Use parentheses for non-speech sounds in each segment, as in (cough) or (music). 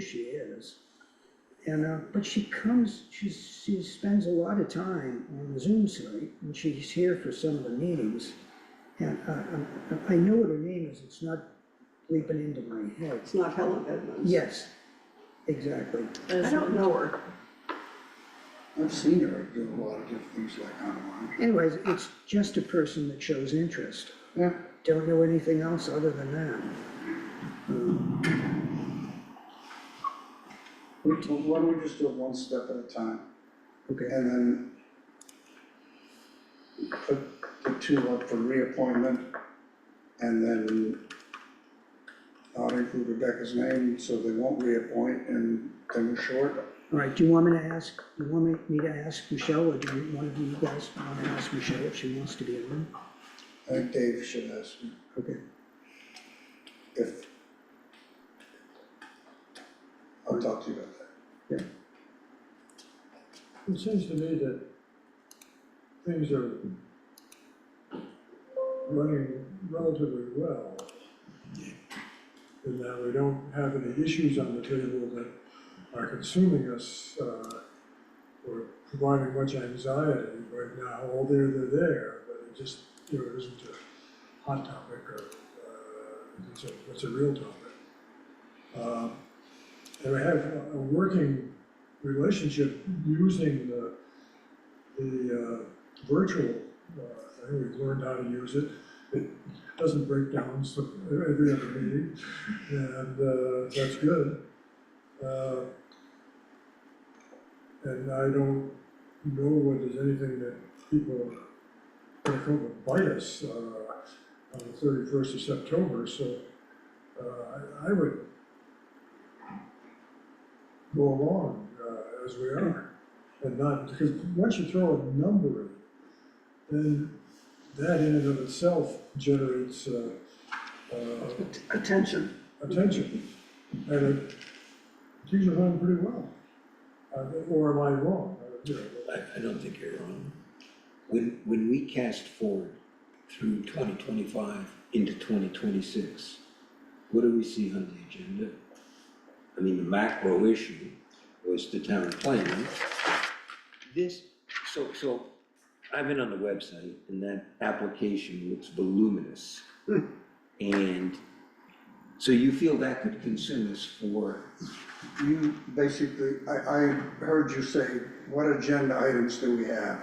she is. And, uh, but she comes, she's, she spends a lot of time on the Zoom site, and she's here for some of the meetings. And, uh, I'm- I know what her name is, it's not leaping into my head. It's not Helen Edmonds. Yes, exactly. I don't know her. I've seen her do a lot of different things like online. Anyways, it's just a person that shows interest. Yeah, Don't know anything else other than that. we told, why don't we just do it one step at a time Okay, and then put the two up for reappointment and then not include Rebecca's name, so they won't reappoint and then we're short. all right, do you want me to ask, you want me- me to ask Michelle, or do you, one of you guys want to ask Michelle if she wants to be on? I think Dave should ask me Okay, if. I'll talk to you about that. It seems to me that things are running relatively well. And that we don't have any issues on the table that are consuming us, uh, or providing much anxiety right now, although they're there, but it just, you know, isn't a hot topic or, uh, it's a, it's a real topic. Uh, And we have a- a working relationship using the, the uh, virtual, uh, thing, we've learned how to use it. It doesn't break down so every other meeting, and uh, that's good. Uh, And I don't know whether there's anything that people are gonna come and bite us uh, on the thirty-first of September, so uh, I- I would go along uh, as we are. And not, because once you throw a number in, then that in and of itself generates uh, uh, Att- Attention. attention. And it, things are running pretty well. Uh, Or am I wrong? Uh, you know, I, I don't think you're wrong. When, when we cast forward through twenty twenty-five into twenty twenty-six, what do we see on the agenda? I mean, the macro issue was the town plan. This, so, so, I've been on the website and that application looks voluminous. And, so you feel that could consume us for, You basically, I, I heard you say, what agenda items do we have?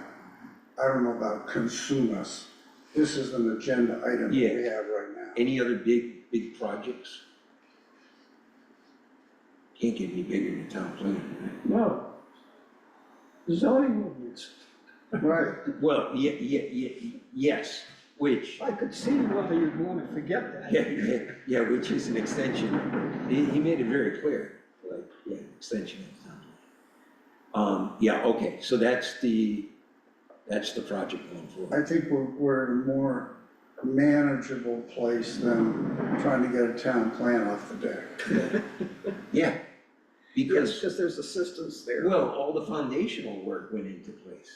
I don't know about consume us. This is an agenda item that we Yeah. have right now. any other big, big projects? Can't get any bigger than town planning, right? No. Zoning ordinance. Right, Well, ye- ye- ye- yes, which, (laughs) I could see whether you'd want to forget that. yeah, yeah, yeah, which is an extension, he, he made it very clear, like, yeah, extension of town. Um, yeah, okay, so that's the, that's the project going forward, I think we're, we're in a more manageable place than trying to get a town plan off the deck. yeah. Yes, Because, because there's assistance there. well, all the foundational work went into place,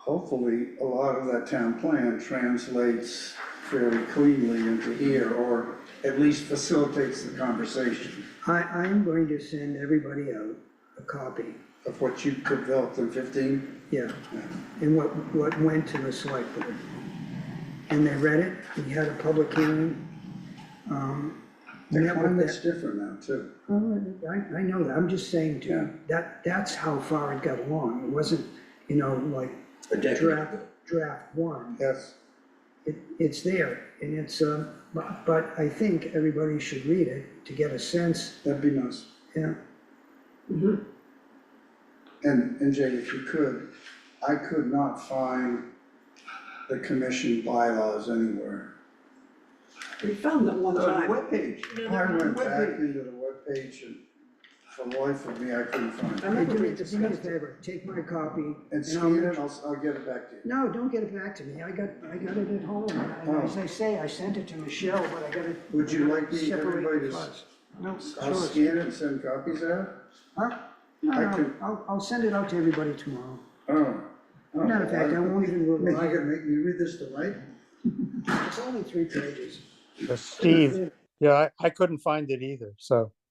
Hopefully, a lot of that town plan translates fairly cleanly into here, or at least facilitates the conversation I, I am going to send everybody out a copy, of what you developed in fifteen. yeah, Yeah. and what, what went to the select board. And they read it, we had a public hearing. Um, The met with climate's different now too. Oh, I, I know that, I'm just saying to Yeah. you, that, that's how far it got along, it wasn't, you know, like a decade draft, ago. draft one. Yes. It, it's there, and it's, um, but, but I think everybody should read it to get a sense, That'd be nice. yeah, Mhm. And, and Jay, if you could, I could not find the commission bylaws anywhere. We found them one On time. the webpage, I went back into the webpage and for the life of me, I couldn't find I it. Hey, remember do me, do me we a discussed it. favor, take my copy. And I'll scan make- it, I'll, I'll get it back to you. No, don't get it back to me, I got, I got it at home, and Oh. as I say, I sent it to Michelle, but I got it. Would you like me, separated everybody to s- files. No, I'll sure. scan it and send copies out? Huh? No, I no, can- I'll, I'll send it out to everybody tomorrow. Oh. oh, Matter of fact, I won't even Am I revise gonna make you read this tonight? it, it's only three pages. Uh, Steve, yeah, I, I couldn't find it either, so